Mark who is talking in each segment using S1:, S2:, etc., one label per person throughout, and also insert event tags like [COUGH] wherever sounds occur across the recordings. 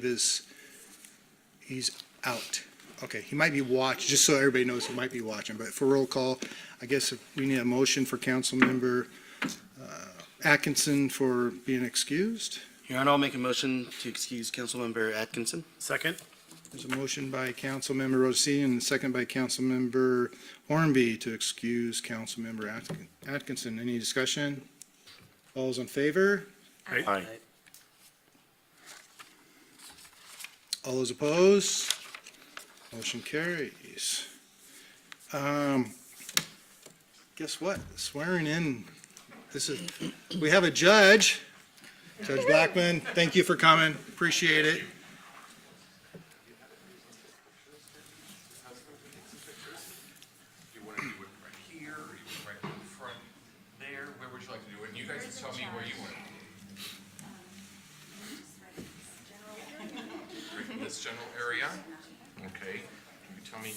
S1: believe is, he's out. Okay, he might be watch, just so everybody knows, he might be watching, but for roll call, I guess if we need a motion for council member uh, Atkinson for being excused.
S2: Your Honor, I'll make a motion to excuse Councilmember Atkinson.
S3: Second?
S1: There's a motion by Councilmember Rosin and a second by Councilmember Hornby to excuse Councilmember Atkin- Atkinson. Any discussion? All All's in favor?
S2: Aye.
S1: All those opposed? Motion carries. Um, guess what? Swearing in, this is, we have a judge. Judge Blackman, thank you for coming. Appreciate it.
S4: Do you want to do it right here, or you want it right in front there? Where would you like to do it? And you guys can tell me where you want it. Right in This general area? Okay. Can you tell me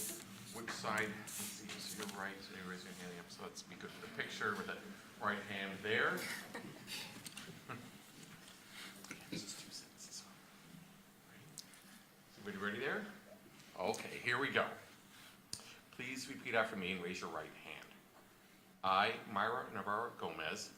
S4: which side? Let's see, so Your right, so you're raising your hand up, so let's be good for the picture with that right hand there. [LAUGHS] This is two sentences. Everybody ready there? Okay, here we go. Please repeat after me and raise your right hand. I, Myra Navarro Gomez,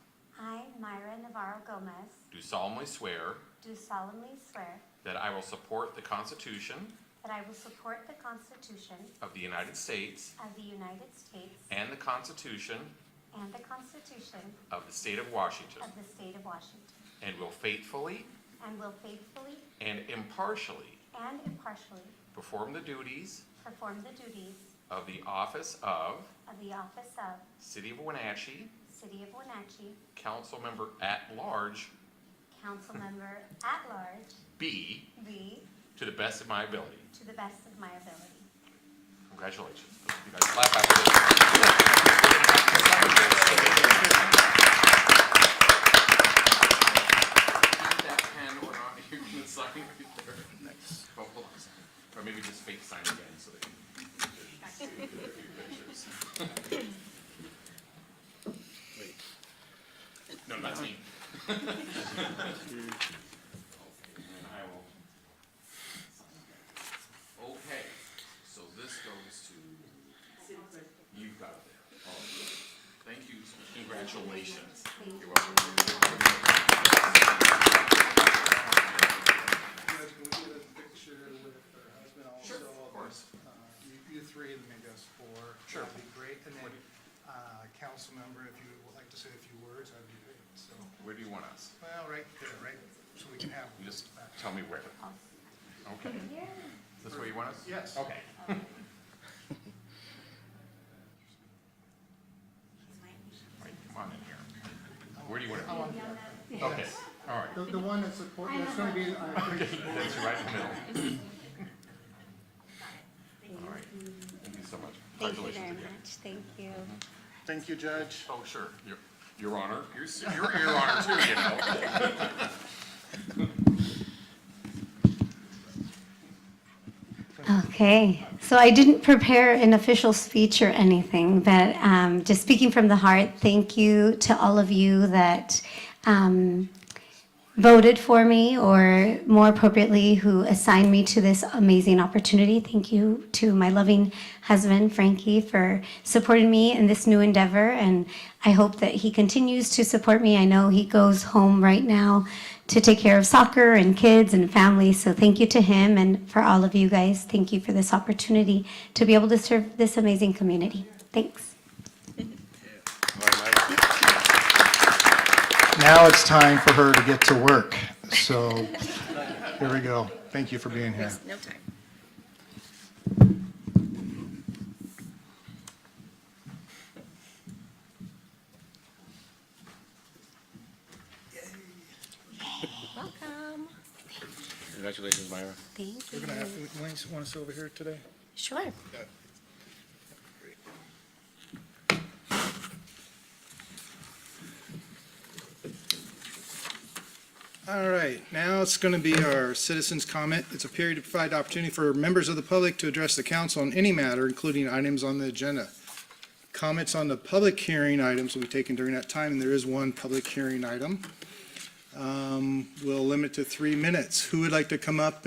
S5: I, Myra Navarro Gomez,
S4: do solemnly swear
S5: do solemnly swear
S4: that I will support the Constitution
S5: that I will support the Constitution
S4: of the United States
S5: of the United States
S4: and the Constitution
S5: and the Constitution
S4: of the State of Washington,
S5: of the State of Washington,
S4: and will faithfully
S5: and will faithfully
S4: and impartially
S5: and impartially
S4: perform the duties
S5: perform the duties
S4: of the office of
S5: of the office of
S4: City of Wenatchee
S5: City of Wenatchee
S4: Council Member at Large
S5: Council Member at Large
S4: B
S5: B
S4: to the best of my ability.
S5: to the best of my ability.
S4: Congratulations. You guys clap after this. that pen or not, you can sign right there. Nice. Or maybe just fake sign again so they. No, that's me. [LAUGHS] And then I will. Okay, so this goes to. You've got it there. All right. Thank you. Congratulations. You're welcome.
S6: Can we get a picture with her husband also?
S4: Of course.
S6: Uh, You you three, and make us four.
S4: Sure.
S6: That'd be great. And then, uh, council member, if you would like to say a few words, that'd be great. So,
S4: Where do you want us?
S6: well, right there, right, so we can have.
S4: You just tell me where. Okay. Is this where you want us?
S6: Yes.
S4: Okay. Mike, Come on in here. Where do you want
S6: I
S4: it?
S6: want that.
S4: Okay, all right.
S6: The, the one that's support, that's gonna be, uh,
S4: That's right in the middle. All right. Thank you so much. Congratulations again.
S5: thank you.
S3: Thank you, Judge.
S4: Oh, sure. Your, your honor. Your, s- your your honor too, you know.
S5: Okay, so I didn't prepare an official speech or anything, but um, just speaking from the heart, thank you to all of you that um, voted for me, or more appropriately, who assigned me to this amazing opportunity. Thank you to my loving husband, Frankie, for supporting me in this new endeavor, and I hope that he continues to support me. I know he goes home right now to take care of soccer and kids and family, so thank you to him and for all of you guys. Thank you for this opportunity to be able to serve this amazing community. Thanks.
S6: Now it's time for her to get to work, so, here we go. Thank you for being here.
S7: No time. Welcome.
S2: Congratulations, Myra.
S7: Thank
S1: We're
S7: you.
S1: gonna have, to want us over here today?
S7: Sure.
S1: All right, now it's going to be our citizens' comment. It's a period to provide opportunity for members of the public to address the council on any matter, including items on the agenda. Comments on the public hearing items will be taken during that time, and there is one public hearing item. Um, We'll limit to three minutes. Who would like to come up